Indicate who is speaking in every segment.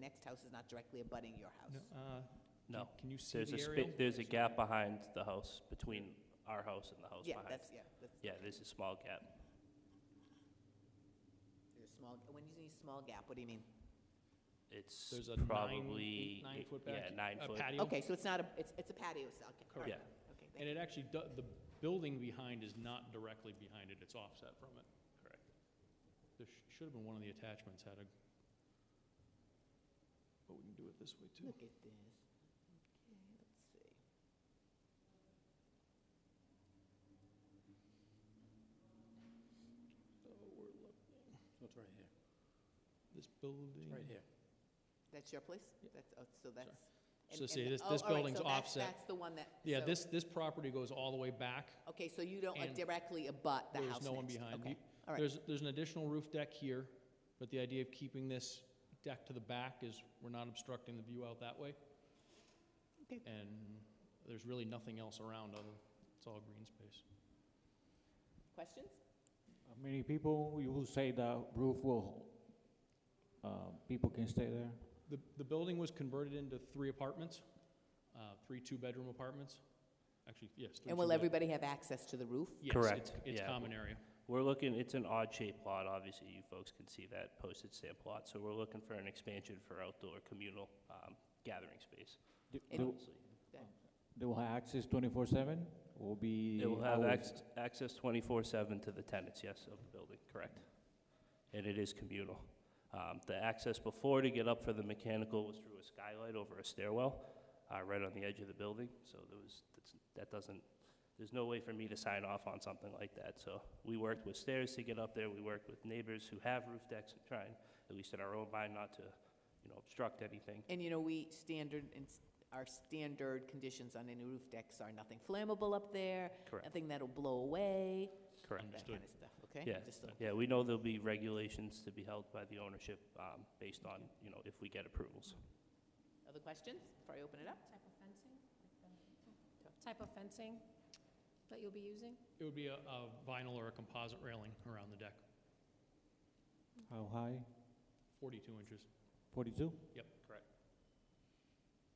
Speaker 1: next house is not directly abutting your
Speaker 2: No,
Speaker 1: house.
Speaker 2: uh,
Speaker 3: No.
Speaker 2: can you see
Speaker 3: There's
Speaker 2: the
Speaker 3: a
Speaker 2: aerial?
Speaker 3: spa- there's a gap behind the house, between our house and the house
Speaker 1: Yeah,
Speaker 3: behind.
Speaker 1: that's, yeah, that's,
Speaker 3: Yeah, there's a small gap.
Speaker 1: there's a small, when you say small gap, what do you mean?
Speaker 3: It's
Speaker 2: There's a nine-
Speaker 3: probably.
Speaker 2: eight- nine
Speaker 3: eight-
Speaker 2: foot
Speaker 3: Yeah,
Speaker 2: back-
Speaker 3: nine
Speaker 2: a
Speaker 3: foot.
Speaker 2: patio?
Speaker 1: Okay, so it's not a, it's, it's a patio, so, okay. all right.
Speaker 3: Correct.
Speaker 1: Okay,
Speaker 2: And
Speaker 1: thank you.
Speaker 2: it actually, do- the building behind is not directly behind it, it's offset from it.
Speaker 3: Correct.
Speaker 2: There sh- should have been one of the attachments had a, but we can do it this way too.
Speaker 1: Look at this. Okay, let's see.
Speaker 2: So we're look-
Speaker 4: So it's right here,
Speaker 1: Hmm.
Speaker 2: This building.
Speaker 4: right here.
Speaker 1: That's your place?
Speaker 2: Yeah.
Speaker 1: That's, oh, so that's. and-
Speaker 2: So
Speaker 1: and
Speaker 2: see,
Speaker 1: the-
Speaker 2: this-
Speaker 1: oh,
Speaker 2: this
Speaker 1: all right, so
Speaker 2: building's
Speaker 1: that's-
Speaker 2: offset.
Speaker 1: That's the one that.
Speaker 2: Yeah,
Speaker 1: so-
Speaker 2: this, this property goes all the way back.
Speaker 1: Okay, so you don't uh,
Speaker 2: and
Speaker 1: directly abut the house
Speaker 2: There's
Speaker 1: next?
Speaker 2: no one behind.
Speaker 1: Okay,
Speaker 2: You-
Speaker 1: all right.
Speaker 2: There's, there's an additional roof deck here, but the idea of keeping this deck to the back is we're not obstructing the view out that way.
Speaker 1: Okay.
Speaker 2: And there's really nothing else around other, it's all green space.
Speaker 1: Questions?
Speaker 4: Uh, Many people, you will say the roof will, uh, people can stay there?
Speaker 2: The, the building was converted into three apartments, uh, three two-bedroom apartments. Actually, yes. three
Speaker 1: And will
Speaker 2: two-bed-
Speaker 1: everybody have access to the roof?
Speaker 2: Yes,
Speaker 3: Correct,
Speaker 2: it's- It's
Speaker 3: yeah.
Speaker 2: common area.
Speaker 3: We're looking, it's an odd shaped lot, obviously, you folks can see that posted stamp lot. So we're looking for an expansion for outdoor communal um, gathering space,
Speaker 4: Do-
Speaker 1: It-
Speaker 4: do-
Speaker 3: obviously.
Speaker 4: They will have access twenty-four seven, will be?
Speaker 3: It will have
Speaker 4: hours?
Speaker 3: access, access twenty-four seven to the tenants, yes, of the building, correct. And it is communal. Um, the access before to get up for the mechanical was through a skylight over a stairwell, uh, right on the edge of the building, so there was, that's- that doesn't, there's no way for me to sign off on something like that, so we worked with stairs to get up there, we worked with neighbors who have roof decks and trying, at least in our own mind, not to, you know, obstruct anything.
Speaker 1: And you know, we standard, and s- our standard conditions on any roof decks are nothing flammable up there,
Speaker 3: Correct.
Speaker 1: nothing that'll blow away,
Speaker 3: Correct.
Speaker 1: that
Speaker 2: Understood.
Speaker 1: kind of stuff, okay?
Speaker 3: Yeah,
Speaker 1: Just so-
Speaker 3: yeah, we know there'll be regulations to be held by the ownership, um, based on, you know, if we get approvals.
Speaker 1: Other questions before I open it up?
Speaker 5: Type of fencing? like the- Type of fencing that you'll be using?
Speaker 2: It would be a a vinyl or a composite railing around the deck,
Speaker 4: How high?
Speaker 2: 42 inches.
Speaker 4: Forty-two?
Speaker 2: Yep, correct.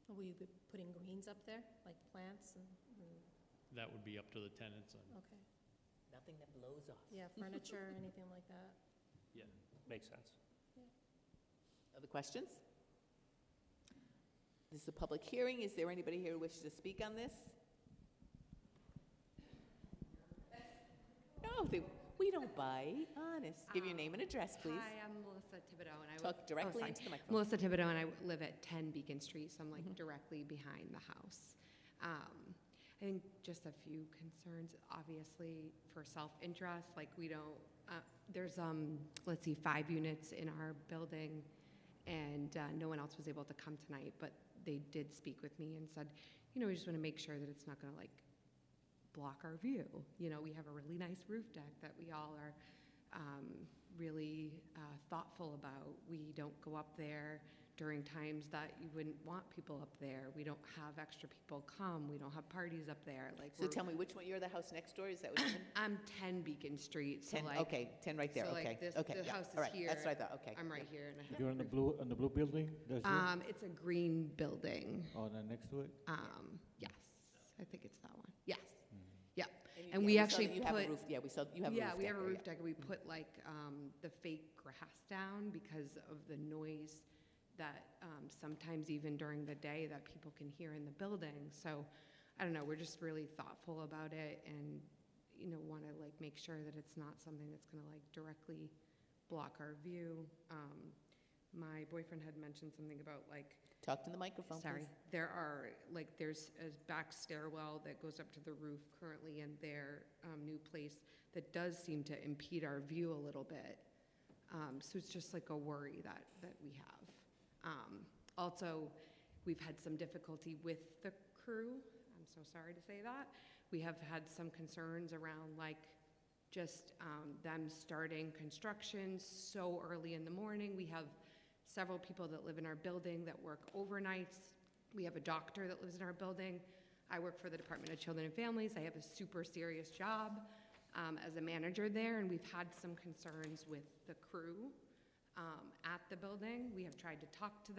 Speaker 5: Will you be putting greens up there, like plants and, and-
Speaker 2: That would be up to the tenants and
Speaker 5: okay,
Speaker 1: Nothing that blows off.
Speaker 5: yeah, furniture, anything like that?
Speaker 3: Makes sense.
Speaker 1: Other questions? This is a public hearing. Is there anybody here who wishes to speak on this? No, they, we don't bite, honest. Give your name and address, please.
Speaker 6: Ah. Hi, I'm Melissa Thibodeau, and I wo-
Speaker 1: Talk directly
Speaker 6: sorry.
Speaker 1: into the microphone. Mm-hmm.
Speaker 6: Melissa Thibodeau, and I w- live at 10 Beacon Street, so I'm like directly behind the house. Um, I think just a few concerns, obviously, for self-interest, like we don't, uh, there's, um, let's see, five units in our building, and uh, no one else was able to come tonight, but they did speak with me and said, you know, we just want to make sure that it's not going to like block our view. You know, we have a really nice roof deck that we all are um, really uh, thoughtful about. We don't go up there during times that you wouldn't want people up there. We don't have extra people come. We don't have parties up there. Like,
Speaker 1: So
Speaker 6: we're-
Speaker 1: tell me, which one, you're the house next door? Is that what you mean?
Speaker 6: I'm 10 Beacon Street, so
Speaker 1: 10,
Speaker 6: like,
Speaker 1: okay, 10 right there,
Speaker 6: so,
Speaker 1: okay.
Speaker 6: like, this-
Speaker 1: okay,
Speaker 6: the
Speaker 1: yeah,
Speaker 6: house is
Speaker 1: all right, That's
Speaker 6: here.
Speaker 1: what I thought, okay.
Speaker 6: I'm right here and I have.
Speaker 4: You're in the blue, in the blue building, that's
Speaker 3: Uh,
Speaker 4: you,
Speaker 6: Um, it's a green building.
Speaker 4: or the next to it?
Speaker 6: Um, yes, I think it's that one. Yes. Yep.
Speaker 1: you-
Speaker 6: and
Speaker 1: yeah,
Speaker 6: we
Speaker 1: saw
Speaker 6: actually
Speaker 1: that you have a
Speaker 6: put-
Speaker 1: roof- Yeah, we saw, you have a roof
Speaker 6: yeah, we have a
Speaker 1: deck there,
Speaker 6: roof
Speaker 1: yeah.
Speaker 6: deck, and we put like um, the fake grass down because of the noise that um, sometimes even during the day that people can hear in the building. So I don't know, we're just really thoughtful about it, and you know, want to like make sure that it's not something that's going to like directly block our view. Um, my boyfriend had mentioned something about like
Speaker 1: Talk to the microphone, please.
Speaker 6: Sorry, there are, like, there's a back stairwell that goes up to the roof currently in their um, new place that does seem to impede our view a little bit. Um, So it's just like a worry that, that we have. Um, Also, we've had some difficulty with the crew, I'm so sorry to say that. We have had some concerns around, like, just um, them starting construction so early in the morning. We have several people that live in our building that work overnights. We have a doctor that lives in our building. I work for the Department of Children and Families. I have a super serious job um, as a manager there, and we've had some concerns with the crew um, at the building. We have tried to talk to them.